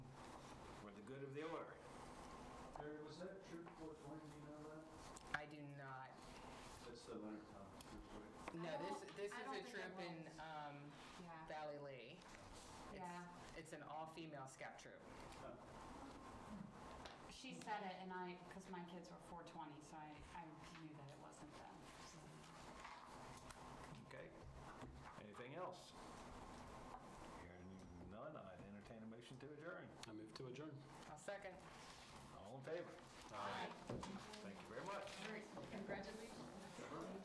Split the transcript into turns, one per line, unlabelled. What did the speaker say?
that Shreveport Twain, do you know
I do not.
that? That's the winter time, Shreveport.
No,
I
this,
don't-
this
I
is
don't
a
think
troop
I
in
will.
um,
Yeah.
Valley Lee. It's-
Yeah.
It's an all-female scout troop.
She said it, and I, because my kids were 420, so I, I knew that it wasn't them. so.
Okay. Anything else? Hearing none, I would entertain a motion to adjourn.
I move to adjourn.
I'll second.
All in favor? Thank you very much.
Congratulations.